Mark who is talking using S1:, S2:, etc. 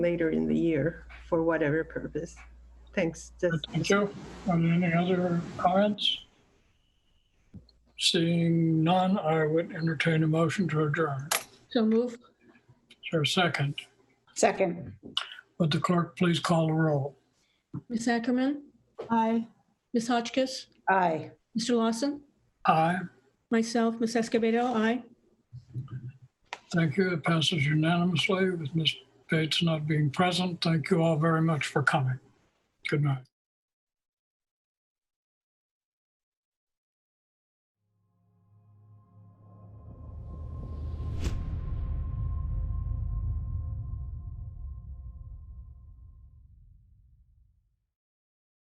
S1: later in the year for whatever purpose. Thanks. Just
S2: Thank you. Um, Any other comments? Seeing none, I would entertain a motion to adjourn.
S3: So move.
S2: Is there a second?
S4: Second.
S2: Would the clerk please call the roll?
S3: Ms. Ackerman,
S4: Aye.
S3: Ms. Hotchkiss,
S4: Aye.
S3: Mr. Lawson,
S2: Aye.
S3: myself, Ms. Escobedo, aye.
S2: Thank you. It passes unanimously with Ms. Bates not being present. Thank you all very much for coming. Good night.